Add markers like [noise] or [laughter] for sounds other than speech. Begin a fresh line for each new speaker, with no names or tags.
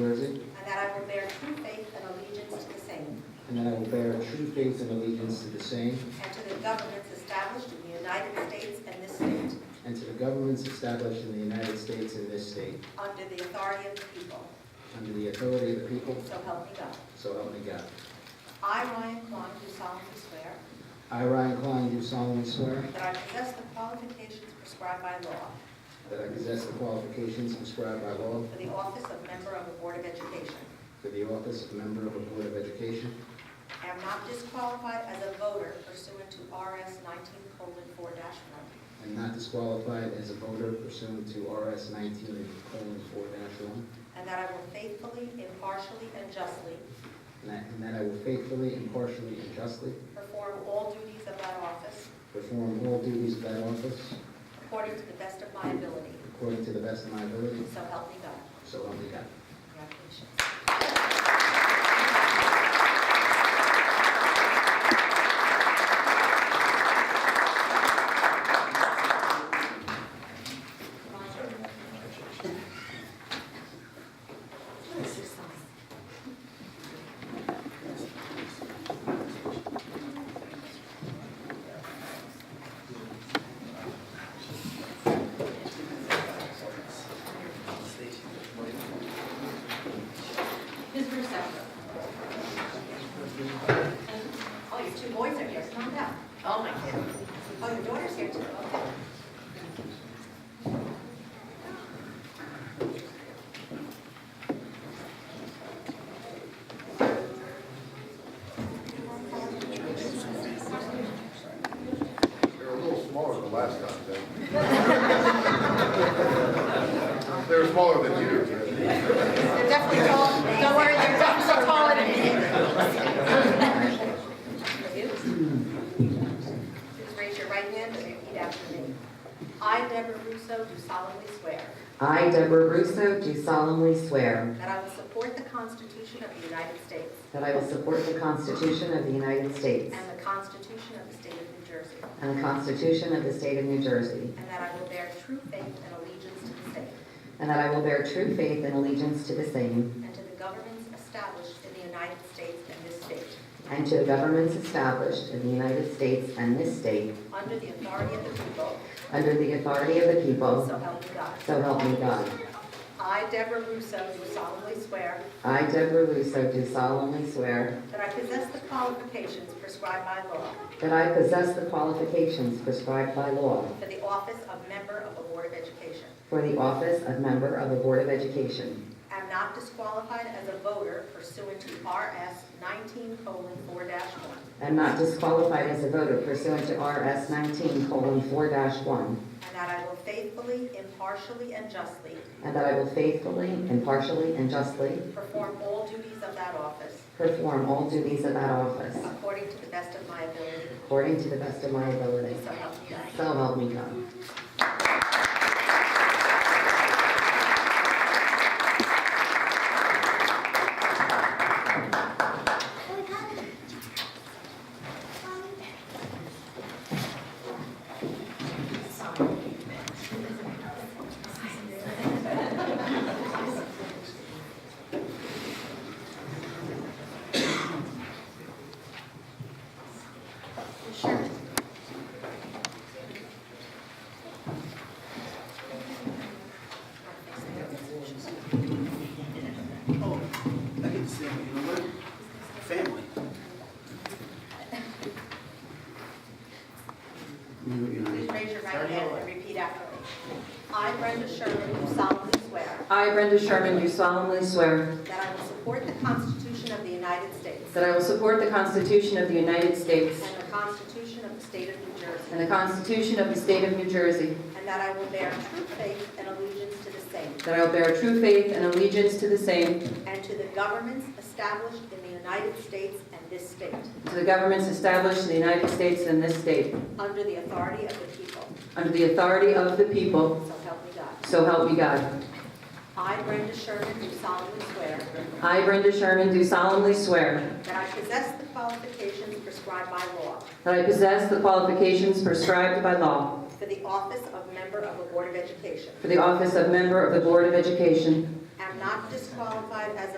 Jersey,
and that I will bear true faith and allegiance to the same
and that I will bear true faith and allegiance to the same
and to the governments established in the United States and this state,
and to the governments established in the United States and this state,
under the authority of the people,
under the authority of the people,
so help me God.
so help me God.
I, Ryan Klein, do solemnly swear
I, Ryan Klein, do solemnly swear
that I possess the qualifications prescribed by law
that I possess the qualifications prescribed by law
for the office of member of the Board of Education.
for the office of member of a Board of Education,
I am not disqualified as a voter pursuant to RS 19:4-1,
and not disqualified as a voter pursuant to RS 19:4-1,
and that I will faithfully, impartially, and justly
and that- and that I will faithfully, impartially, and justly
perform all duties of that office
perform all duties of that office
according to the best of my ability,
according to the best of my ability,
so help me God.
so help me God.
Congratulations. Ms. Russo. Oh, your two boys are here, come on down. Oh, my goodness. Oh, your daughter's here too, okay.
They were a little smaller than last time, [laughs] Ted. They were smaller than you. Ted.
They're definitely tall, don't worry, they're definitely taller than me. Please raise your right hand and repeat after me. I, Deborah Russo, do solemnly swear
I, Deborah Russo, do solemnly swear
that I will support the Constitution of the United States
that I will support the Constitution of the United States
and the Constitution of the State of New Jersey,
and the Constitution of the State of New Jersey,
and that I will bear true faith and allegiance to the same
and that I will bear true faith and allegiance to the same
and to the governments established in the United States and this state,
and to the governments established in the United States and this state
under the authority of the people,
under the authority of the people,
so help me God.
so help me God.
I, Deborah Russo, do solemnly swear
I, Deborah Russo, do solemnly swear
that I possess the qualifications prescribed by law
that I possess the qualifications prescribed by law
for the office of member of a Board of Education.
for the office of member of the Board of Education.
I am not disqualified as a voter pursuant to RS 19:4-1,
am not disqualified as a voter pursuant to RS 19:4-1,
and that I will faithfully, impartially, and justly
and that I will faithfully, impartially, and justly
perform all duties of that office
perform all duties of that office
according to the best of my ability,
according to the best of my ability.
so help me God.
So help me God.
Oh, I get to say, you know what? Family.
Please raise your right hand and repeat after me. I, Brenda Sherman, do solemnly swear
I, Brenda Sherman, do solemnly swear
that I will support the Constitution of the United States
that I will support the Constitution of the United States
and the Constitution of the State of New
and
Jersey,
the Constitution of the State of New Jersey,
and that I will bear true faith and allegiance to the same
that I will bear true faith and allegiance to the same,
and to the governments established in the United States and this state,
to the governments established in the United States and this state,
under the authority of the people,
under the authority of the people,
so help me God.
so help me God.
I, Brenda Sherman, do solemnly swear
I, Brenda Sherman, do solemnly swear
that I possess the qualifications prescribed by law
that I possess the qualifications prescribed by law
for the office of member of a Board of Education,
for the office of member of the Board of Education,
am not disqualified as a